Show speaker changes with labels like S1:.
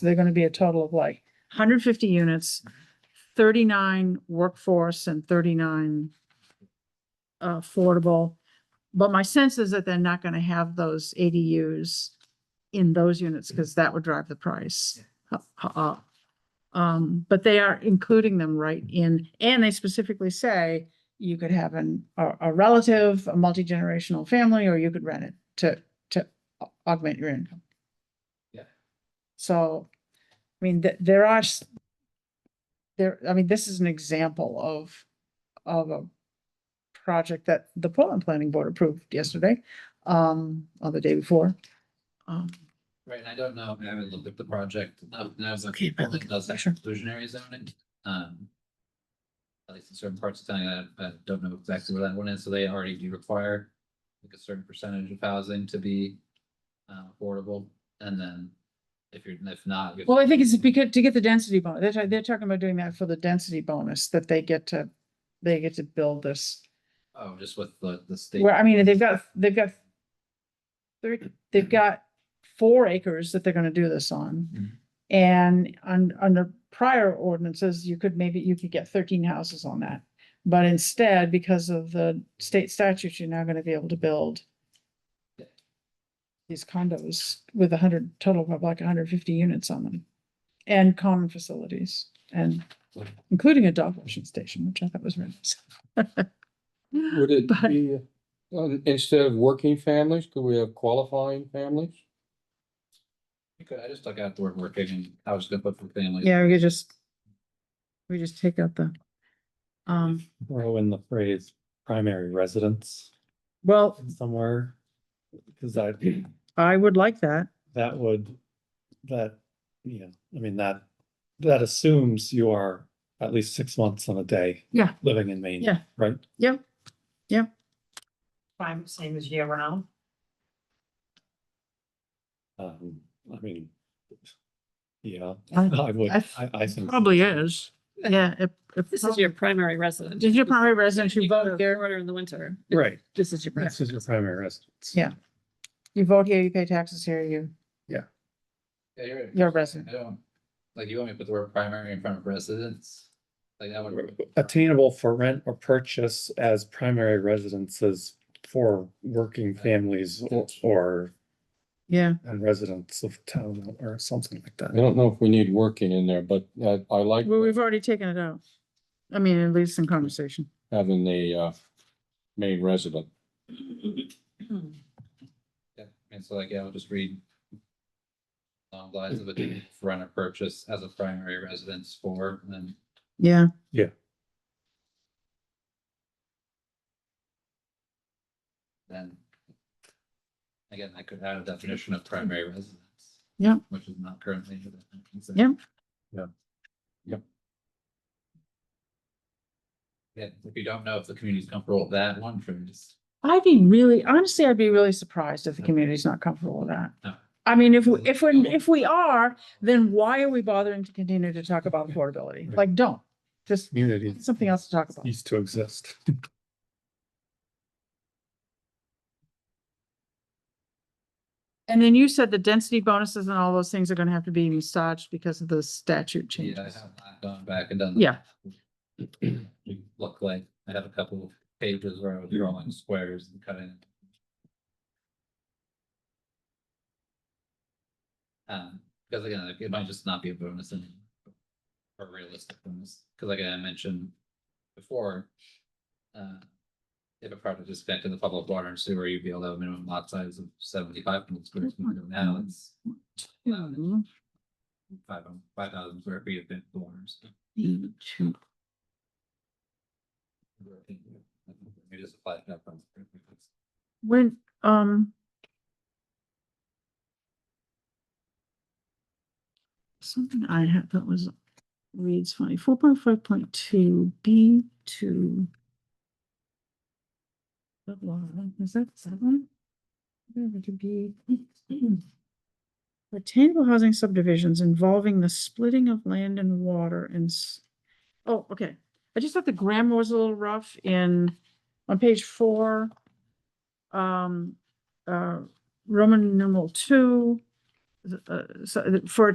S1: they're gonna be a total of like hundred fifty units, thirty-nine workforce and thirty-nine uh, affordable. But my sense is that they're not gonna have those ADUs in those units because that would drive the price up. up. Um, but they are including them right in, and they specifically say you could have an, a, a relative, a multi-generational family, or you could rent it to, to au- augment your income.
S2: Yeah.
S1: So, I mean, th- there are s- there, I mean, this is an example of, of a project that the Portland Planning Board approved yesterday, um, or the day before. Um,
S2: Right, and I don't know, I haven't looked at the project, um, and I was
S1: Okay,
S2: looking,
S1: but look at
S2: does
S1: the
S2: that
S1: picture.
S2: exclusionary zoning, um. At least in certain parts of town, I, I don't know exactly where that one is, so they already do require like a certain percentage of housing to be. Uh, affordable, and then if you're, if not. you-
S1: Well, I think it's because to get the density bonus, they're, ta- they're talking about doing that for the density bonus that they get to, they get to build this.
S2: Oh, just with the, the state.
S1: Where, I mean, they've got, they've got they they've got four acres that they're gonna do this on.
S2: Mhm.
S1: And on, under prior ordinances, you could maybe, you could get thirteen houses on that. But instead, because of the state statute, you're now gonna be able to build these condos with a hundred, total of like hundred fifty units on them. And common facilities and including a dog washing station, which I thought was really nice.
S3: Would it
S1: But-
S3: be, uh, instead of working families, could we have qualifying families?
S2: You could- I just took out the word working, and I was gonna put for families.
S1: Yeah, we could just, we just take out the, um,
S4: throw in the phrase primary residence
S1: well,
S4: somewhere. Cause I,
S1: I would like that.
S4: that would, that, yeah, I mean, that, that assumes you are at least six months on a day.
S1: Yeah.
S4: Living in Maine.
S1: Yeah.
S4: Right?
S5: Prime, same as year round.
S4: Um, I mean. Yeah,
S1: I-
S4: I would,
S1: I th-
S4: I, I think. so.
S1: is. Yeah, if, if.
S5: This is your primary residence.
S1: Did your primary residence, you vote
S5: Your
S1: here,
S5: order in the winter.
S4: Right,
S5: This is your. primary.
S4: this is your primary residence.
S1: Yeah. you vote here, you pay taxes here, you,
S2: Yeah, you're right.
S1: you're a resident.
S2: I don't, like, you want me to put the word primary in front of residence? Like, that would.
S4: Attainable for rent or purchase as primary residences for working families or- or,
S1: Yeah,
S4: and residents of town or something like that.
S3: I don't know if we need working in there, but I, I like
S1: well, we've already taken it out. I mean, at least in conversation.
S3: having a, uh, main resident.
S2: Yeah, and so like, yeah, I'll just read. Long lines of a rent or purchase as a primary residence for, and then
S1: Yeah.
S4: Yeah.
S2: then. Again, I could add a definition of primary residence.
S1: Yeah.
S2: Which is not currently. in the definition, so-
S1: Yeah.
S4: Yeah. Yep.
S2: Yeah, if you don't know if the community's comfortable with that one, for just,
S1: I'd be really, honestly, I'd be really surprised if the community's not comfortable with that.
S2: No.
S1: I mean, if, we- if, we if we are, then why are we bothering to continue to talk about affordability? Like, don't, just
S4: Community
S1: something else to talk about.
S4: used to exist.
S1: And then you said the density bonuses and all those things are gonna have to be massaged because of the statute
S2: yeah, I
S1: changes.
S2: have not gone back and done. that.
S1: Yeah,
S2: Look like I have a couple of pages where I was drawing squares and cutting. Um, because again, like, it might just not be a bonus and a realistic bonus, because like I mentioned before, uh, if a project is connected to the public water and sewer, you'd be able to have a minimum lot size of seventy-five hundred square feet. Now it's
S1: Two,
S2: five, five thousand square feet of big corners.
S1: eight, two.
S2: We just applied that from.
S1: When, um. Something I had that was reads funny, four point five point two B two. Is that seven? It could be. Attainable housing subdivisions involving the splitting of land and water and s- oh, okay. I just thought the grammar was a little rough in, on page four um, uh, Roman numeral two, th- uh, so, for